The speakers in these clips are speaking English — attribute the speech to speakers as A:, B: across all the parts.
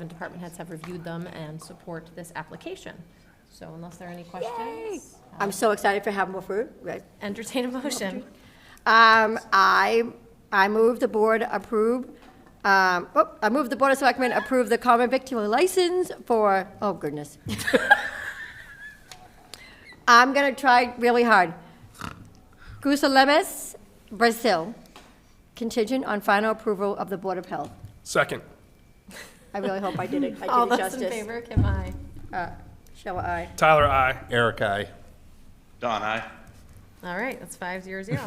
A: The department heads have reviewed them and support this application. So unless there are any questions,
B: I'm so excited for having more food, right?
A: entertain a motion.
B: Um, I, I move the board approve, um, oh, I move the Board of Selectmen approve the common victular license for, oh goodness. I'm gonna try really hard. Gusalemas, Brazil, contingent on final approval of the Board of Health.
C: Second.
B: I really hope I did it, I
A: All
B: did it
A: those in
B: justice.
A: favor, Kim, aye.
B: Uh, Shall I?
C: Tyler, I.
D: Eric, I.
E: Don, aye.
A: All right, that's five zero zero.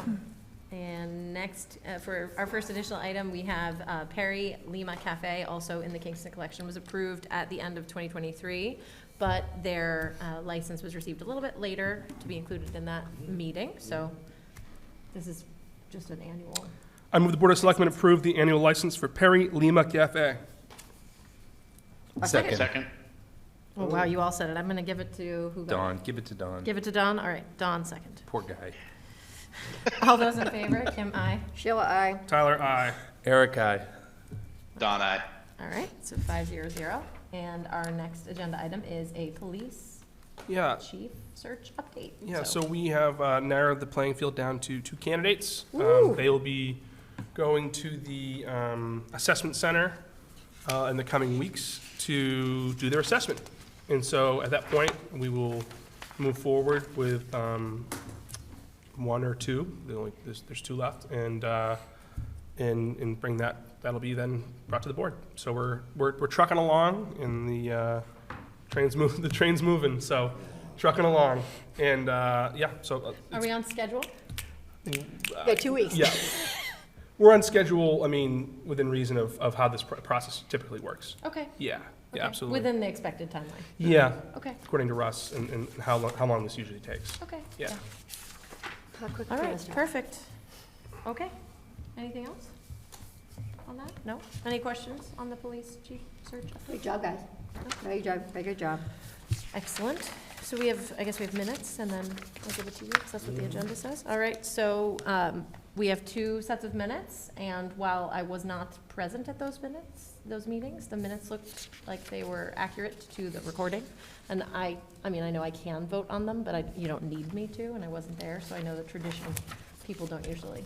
A: And next, uh, for our first additional item, we have uh, Perry Lima Cafe, also in the Kingston Collection, was approved at the end of 2023, but their uh, license was received a little bit later to be included in that meeting, so this is just an annual.
C: I move the Board of Selectmen approve the annual license for Perry Lima Cafe.
D: Second.
E: Second?
A: Oh, wow, you all said it. I'm going to give it to who? got it?
D: Don, give it to Don.
A: Give it to Don? All right, Don second.
D: Poor guy.
A: All those in favor? Kim, aye.
B: Shall I?
C: Tyler, I.
D: Eric, I.
E: Don, aye.
A: All right, so five zero zero. And our next agenda item is a police
C: Yeah,
A: chief search update.
C: yeah, so we have uh, narrowed the playing field down to two candidates. Um, They will be going to the um, assessment center uh, in the coming weeks to do their assessment. And so at that point, we will move forward with um, one or two, The only- there's, there's two left, and, uh, and, and bring that, that'll be then brought to the board. So we're, we're, we're trucking along, and the uh, train's move, the train's moving, so trucking along. And, uh, yeah, so, uh,
A: Are we on schedule?
B: Yeah, two weeks.
C: yeah. We're on schedule, I mean, within reason of, of how this pr- process typically works.
A: Okay.
C: Yeah,
A: Okay.
C: yeah, absolutely.
A: Within the expected timeline.
C: Yeah,
A: Okay,
C: according to Russ, and, and how long, how long this usually takes.
A: okay.
C: Yeah.
B: How quick
A: All
B: can I
A: right,
B: start?
A: perfect. Okay. Anything else on that? No? Any questions on the police chief search update?
B: Good job, guys. Very good job, very good job.
A: Excellent. So we have, I guess we have minutes, and then I'll give it to you, because that's what the agenda says. All right, so um, we have two sets of minutes, and while I was not present at those minutes, those meetings, the minutes looked like they were accurate to the recording. And I, I mean, I know I can vote on them, but I, you don't need me to, and I wasn't there, so I know the tradition, people don't usually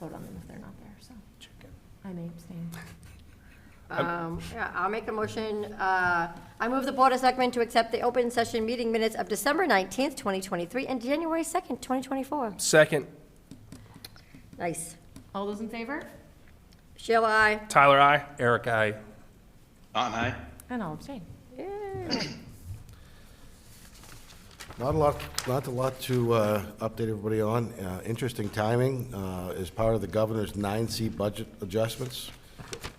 A: vote on them if they're not there, so I may abstain.
B: Um, yeah, I'll make a motion, uh, I move the Board of Selectmen to accept the open session meeting minutes of December nineteenth, twenty twenty-three, and January second, twenty twenty-four.
C: Second,
B: Nice.
A: All those in favor?
B: Shall I?
C: Tyler, I.
D: Eric, I.
E: Don, aye.
A: And I'll abstain.
F: Not a lot, not a lot to uh, update everybody on. Uh, Interesting timing, uh, as part of the governor's nine C budget adjustments,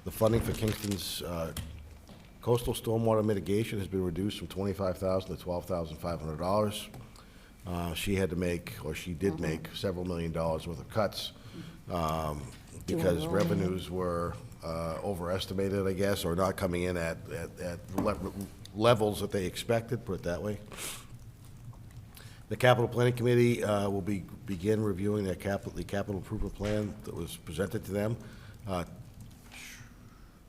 F: the funding for Kingston's uh, coastal stormwater mitigation has been reduced from twenty-five thousand to twelve thousand five hundred dollars. Uh, She had to make, or she did make, several million dollars worth of cuts um, because revenues were uh, overestimated, I guess, or not coming in at, at- at le- levels that they expected, put it that way. The Capital Planning Committee uh, will be, begin reviewing their capital, the capital improvement plan that was presented to them uh,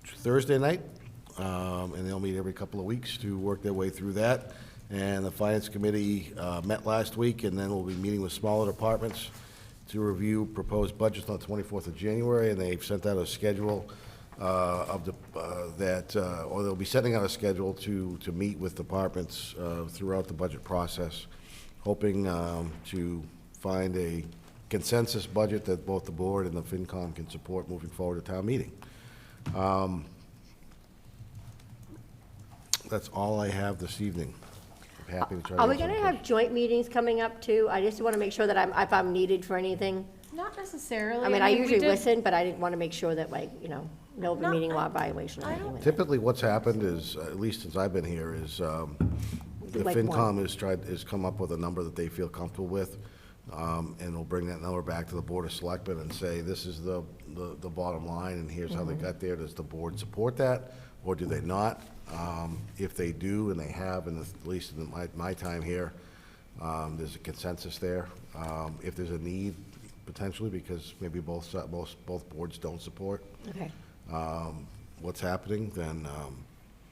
F: Thursday night, um, and they'll meet every couple of weeks to work their way through that. And the Finance Committee uh, met last week, and then we'll be meeting with smaller departments to review proposed budgets on the 24th of January, and they've sent out a schedule uh, of the, uh, that, uh, or they'll be sending out a schedule to, to meet with departments uh, throughout the budget process, hoping um, to find a consensus budget that both the board and the FinCom can support moving forward to town meeting. That's all I have this evening. I'm happy to try to.
B: Are we
F: answer any
B: gonna
F: questions.
B: have joint meetings coming up too? I just wanna make sure that I'm, if I'm needed for anything.
A: Not necessarily.
B: I mean, I
A: we
B: usually
A: did-
B: listen, but I didn't wanna make sure that like, you know, no open
A: No,
B: meeting
A: I-
B: law violation or
A: I
B: anything
A: don't
B: like that.
F: Typically, what's happened is, at least since I've been here, is um, the
B: Like one.
F: FinCom has tried, has come up with a number that they feel comfortable with, um, and will bring that number back to the Board of Selectmen and say, this is the, the the bottom line, and here's how they
B: Mm-hmm.
F: got there. Does the board support that, or do they not? Um, If they do, and they have, and at least in my, my time here, um, there's a consensus there. Um, If there's a need, potentially, because maybe both, si- both, both boards don't support
B: Okay,
F: um, what's happening, then um,